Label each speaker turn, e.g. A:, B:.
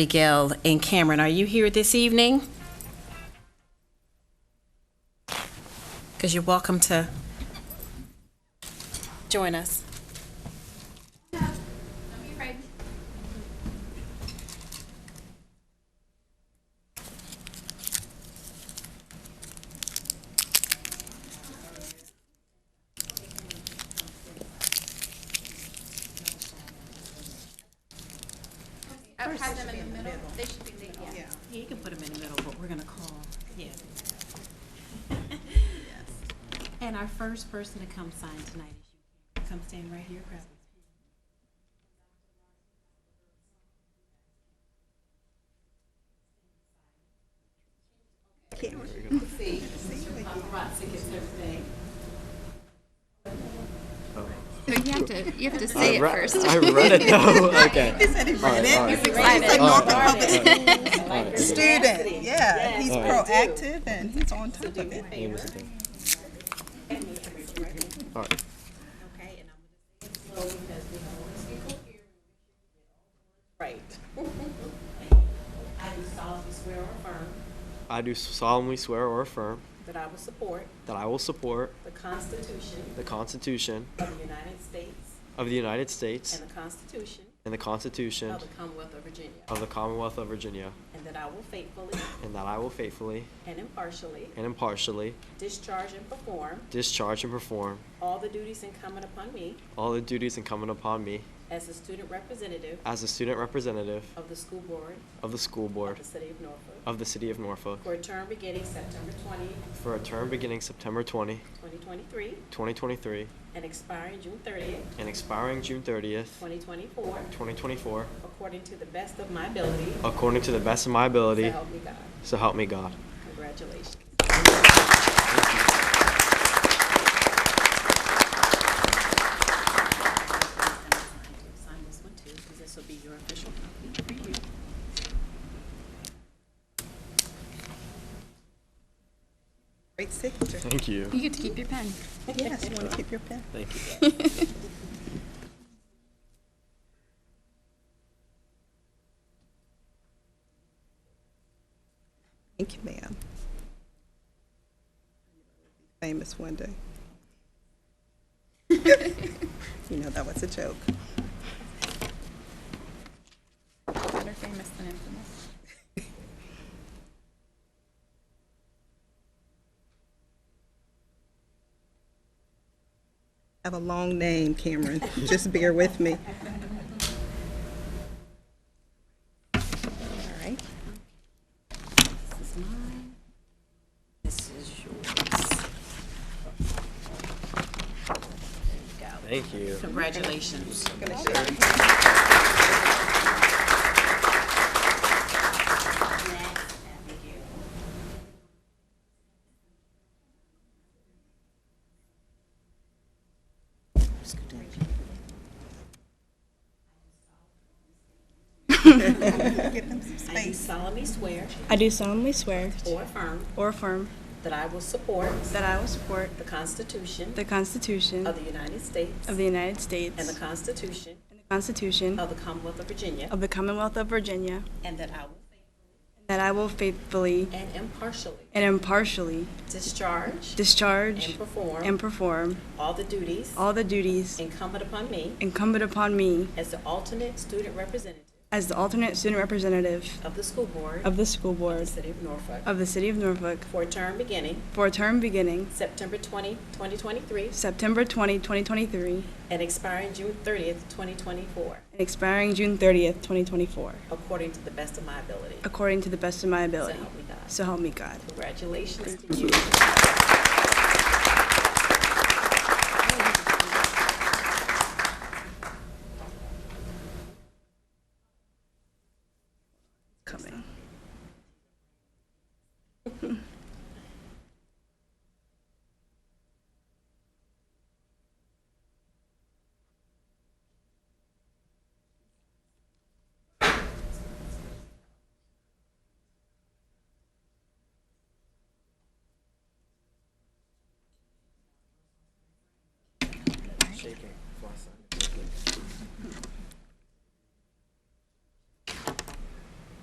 A: Abigail and Cameron, are you here this evening? Because you're welcome to join us.
B: Don't be afraid. I've had them in the middle, they should be leading.
A: You can put them in the middle, but we're going to call. Yeah. And our first person to come sign tonight is you. Come stand right here, Crabbe.
B: No, you have to, you have to say it
C: Ru-
B: first.
C: I read it though. Okay.
D: student. Yeah, he's proactive and he's on top of it.
C: All right.
E: Right. I do solemnly swear or affirm
C: I do solemnly swear or affirm
E: that I will support
C: that I will support
E: the Constitution
C: the Constitution
E: of the United States
C: of the United States
E: and the Constitution
C: and the Constitution
E: of the Commonwealth of Virginia,
C: of the Commonwealth of Virginia,
E: and that I will faithfully
C: and that I will faithfully
E: and impartially
C: and impartially
E: discharge and perform
C: discharge and perform
E: all the duties incumbent upon me
C: all the duties incumbent upon me
E: as a student representative
C: as a student representative
E: of the school board
C: of the school
E: of
C: board
E: the city of Norfolk
C: of the City of Norfolk
E: for a term beginning September 20,
C: for a term beginning September 20,
E: 2023,
C: 2023,
E: and expiring June 30,
C: and expiring June 30th,
E: 2024,
C: 2024,
E: according to the best of my ability,
C: according to the best of my ability.
E: so help me God.
C: So help me God.
E: Congratulations. Sign this one too, because this will be your official copy. Thank you.
D: Great signature.
C: Thank you.
B: You get to keep your pen.
D: Yes, you want to keep your pen?
C: Thank you.
D: Thank you, ma'am. Famous one day. You know, that was a joke.
B: Better famous than infamous.
D: I have a long name, Cameron. Just bear with me.
B: All right.
A: This is mine. This is yours.
C: Thank you.
A: Congratulations.
D: Give them some
E: I do
D: space.
E: solemnly swear
F: I do solemnly swear
E: or affirm
F: or affirm
E: that I will support
F: that I will support
E: the Constitution
F: the Constitution
E: of the United States
F: of the United
E: and the
F: States
E: Constitution
F: and the Constitution
E: of the Commonwealth of Virginia,
F: of the Commonwealth of Virginia,
E: and that I will
F: and that I will faithfully
E: faithfully and impartially
F: and impartially
E: discharge and
F: discharge and
E: perform
F: perform
E: all the duties
F: all the duties
E: incumbent upon me
F: incumbent upon me
E: as the alternate student representative
F: as the alternate student representative
E: of the school board
F: of the school
E: of the
F: board
E: city of Norfolk
F: of the City of Norfolk
E: for a term beginning
F: for a term beginning
E: September 20, 2023,
F: September 20, 2023,
E: and expiring June 30th, 2024,
F: and expiring June 30th, 2024,
E: according to the best of my ability.
F: according to the best of my
E: So
F: ability.
E: help me God.
F: So help me God.
E: Congratulations to you.
F: Coming.